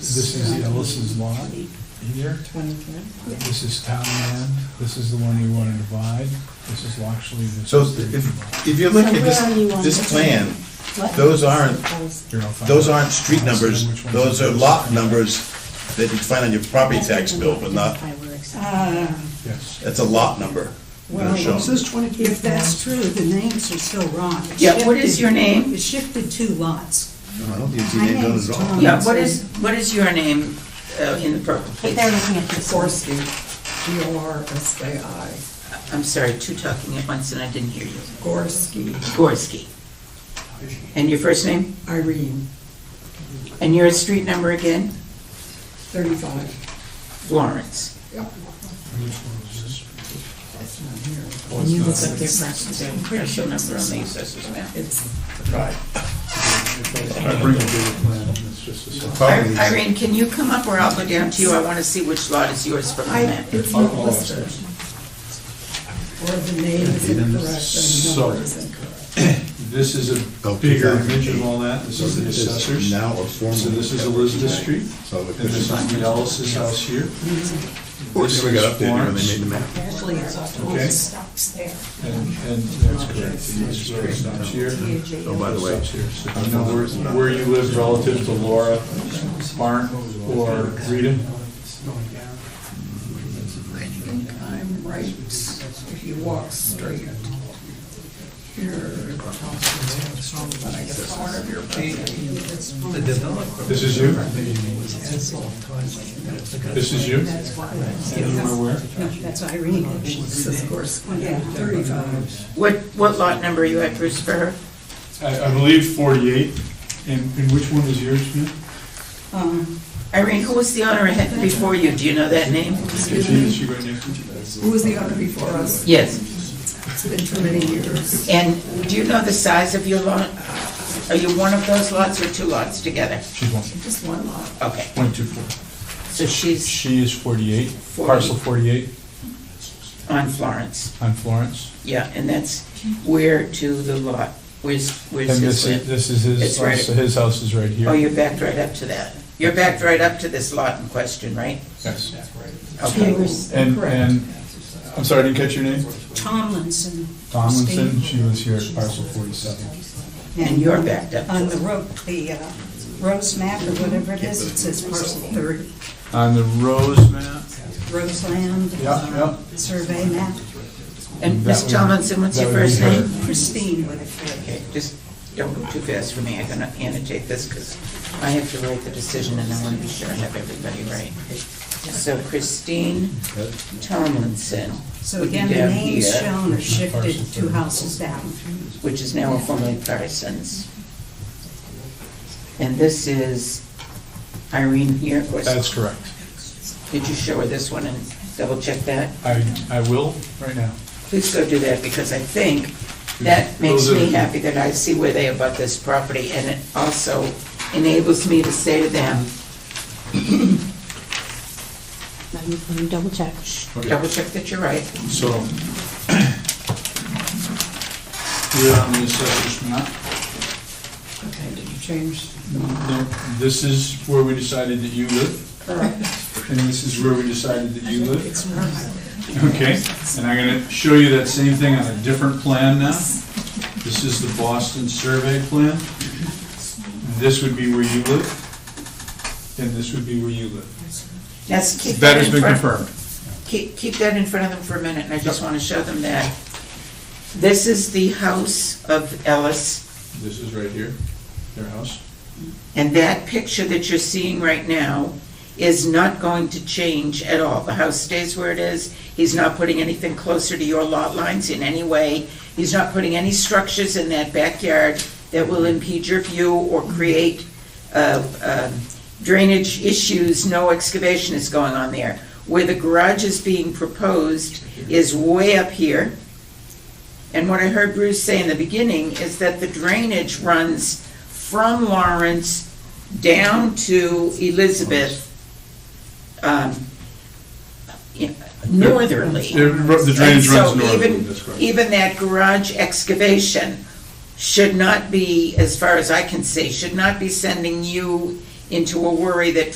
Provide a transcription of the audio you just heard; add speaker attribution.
Speaker 1: This is Ellison's lot here. This is town land. This is the one you want to divide. This is actually the.
Speaker 2: So if, if you look at this, this plan, those aren't,
Speaker 1: Here, I'll find
Speaker 2: those
Speaker 1: it.
Speaker 2: aren't street numbers, those are lot numbers that you find on your property tax bill, but not,
Speaker 1: Yes.
Speaker 2: that's a lot number.
Speaker 3: Uh, Well,
Speaker 2: Show.
Speaker 3: it says 20. If that's true, the names are still wrong. It
Speaker 4: Yeah, what is
Speaker 3: shifted-
Speaker 4: your name?
Speaker 3: It shifted two lots.
Speaker 2: No, I don't think it's
Speaker 3: My
Speaker 2: named on
Speaker 3: name's
Speaker 2: it at all.
Speaker 3: Tom.
Speaker 4: Yeah, what is, what is your name uh, in the purple,
Speaker 5: But
Speaker 4: please?
Speaker 5: they're looking at this one.
Speaker 6: Gorski, G-O-R-S-K-I,
Speaker 4: I'm sorry, two talking at once and I didn't hear you.
Speaker 6: Gorski,
Speaker 4: Gorski. And your first name?
Speaker 6: Irene,
Speaker 4: And your street number again?
Speaker 6: 35.
Speaker 4: Florence.
Speaker 6: Yep. It's not here.
Speaker 1: Well, it's not-
Speaker 4: Same Parcel number on the assessor's map.
Speaker 6: It's,
Speaker 1: it's not a big plan. It's just a side.
Speaker 2: Probably-
Speaker 4: Irene, can you come up or I'll go down to you? I want to see which lot is yours from the
Speaker 6: I,
Speaker 4: map.
Speaker 6: it's not listed. Or the name is incorrect and the
Speaker 1: So-
Speaker 6: number is incorrect.
Speaker 1: This is a
Speaker 2: Oh,
Speaker 1: bigger
Speaker 2: 2008.
Speaker 1: image of all that. This is the
Speaker 2: This is
Speaker 1: assessors.
Speaker 2: Now or formerly.
Speaker 1: So this is Elizabeth Street.
Speaker 2: So if
Speaker 1: And this
Speaker 2: it's
Speaker 1: is the Ellis's house here.
Speaker 2: This we got updated when they made the map.
Speaker 5: Actually, it's all
Speaker 1: Okay.
Speaker 5: stocks there.
Speaker 1: And, and that's correct. This is where it stops here.
Speaker 2: Oh, by the way,
Speaker 1: Stops here. So do you know where, where you live relative to Laura Barn or Rita?
Speaker 6: I'm right, if you walk straight. Here, but I guess one of your pages.
Speaker 1: This is you? This is you? And you are where?
Speaker 3: No, that's Irene.
Speaker 6: This is Gorski, Oh, yeah, 35.
Speaker 4: What, what lot number are you at, Bruce, for her?
Speaker 1: I, I believe forty-eight. And, and which one is yours, Jim?
Speaker 3: Um,
Speaker 4: Irene, who was the owner ahead before you? Do you know that name?
Speaker 1: Is she, is she right next to you?
Speaker 6: Who was the owner before us?
Speaker 4: Yes.
Speaker 6: It's been too many years.
Speaker 4: And do you know the size of your lot? Are you one of those lots or two lots together?
Speaker 1: She's one,
Speaker 6: Just one lot.
Speaker 4: Okay,
Speaker 1: point two four.
Speaker 4: so she's
Speaker 1: She is forty-eight, parcel forty-eight
Speaker 4: on Florence.
Speaker 1: on Florence.
Speaker 4: Yeah, and that's where to the lot? Where's,
Speaker 1: And this
Speaker 4: where's his
Speaker 1: is,
Speaker 4: land?
Speaker 1: this is his,
Speaker 4: It's right-
Speaker 1: so his house is right here.
Speaker 4: Oh, you're backed right up to that. You're backed right up to this lot in question, right?
Speaker 1: Yes.
Speaker 4: Okay.
Speaker 1: And, and, I'm sorry, I didn't catch your name?
Speaker 3: Tomlinson.
Speaker 1: Tomlinson,
Speaker 3: Steve.
Speaker 1: she lives here at parcel forty-seven.
Speaker 4: And you're backed up
Speaker 3: On
Speaker 4: to
Speaker 3: the
Speaker 4: it.
Speaker 3: road, the uh, Rose map or whatever it is, it says parcel 30,
Speaker 1: On the Rose map?
Speaker 3: Roseland.
Speaker 1: Yeah,
Speaker 3: uh, Survey map,
Speaker 4: And
Speaker 1: That
Speaker 4: Ms.
Speaker 1: would-
Speaker 4: Tomlinson, what's
Speaker 1: that
Speaker 4: your
Speaker 1: would be
Speaker 4: first
Speaker 1: her.
Speaker 4: name?
Speaker 3: Christine with a
Speaker 4: Okay, just don't go too fast for me. I'm gonna annotate this because I have to write the decision and I want to be sure I have everybody right. So Christine Tomlinson.
Speaker 3: So
Speaker 4: would be
Speaker 3: again, the
Speaker 4: down
Speaker 3: names
Speaker 4: here,
Speaker 3: shown are shifted two houses down.
Speaker 4: Which is now formerly Parsons. And this is Irene here, of course.
Speaker 1: That's correct.
Speaker 4: Did you show her this one and double check that?
Speaker 1: I, I will right now.
Speaker 4: Please go do that, because I think that makes
Speaker 1: Mm-hmm. Those are-
Speaker 4: me happy that I see where they abut this property, and it also enables me to say to them,
Speaker 5: Let me, let me double check.
Speaker 1: Okay.
Speaker 4: double check that you're right.
Speaker 1: So, here on the assessor's map,
Speaker 6: Okay, did you change?
Speaker 1: no, this is where we decided that you live,
Speaker 6: Correct.
Speaker 1: and this is where we decided that you live.
Speaker 6: It's not.
Speaker 1: Okay, and I'm gonna show you that same thing on a different plan now. This is the Boston survey plan. This would be where you live, and this would be where you live.
Speaker 4: That's, keep
Speaker 1: That
Speaker 4: that
Speaker 1: has
Speaker 4: in
Speaker 1: been
Speaker 4: front,
Speaker 1: confirmed.
Speaker 4: keep, keep that in front of them for a minute, and I just want to show them that. This is the house of Ellis,
Speaker 1: This is right here, their house.
Speaker 4: and that picture that you're seeing right now is not going to change at all. The house stays where it is, he's not putting anything closer to your lot lines in any way, he's not putting any structures in that backyard that will impede your view or create uh, um, drainage issues, no excavation is going on there. Where the garage is being proposed is way up here. And what I heard Bruce say in the beginning is that the drainage runs from Lawrence down to Elizabeth, um, in- northerly.
Speaker 1: The the drainage
Speaker 4: And so
Speaker 1: runs northerly,
Speaker 4: even-
Speaker 1: that's correct.
Speaker 4: Even that garage excavation should not be, as far as I can see, should not be sending you into a worry that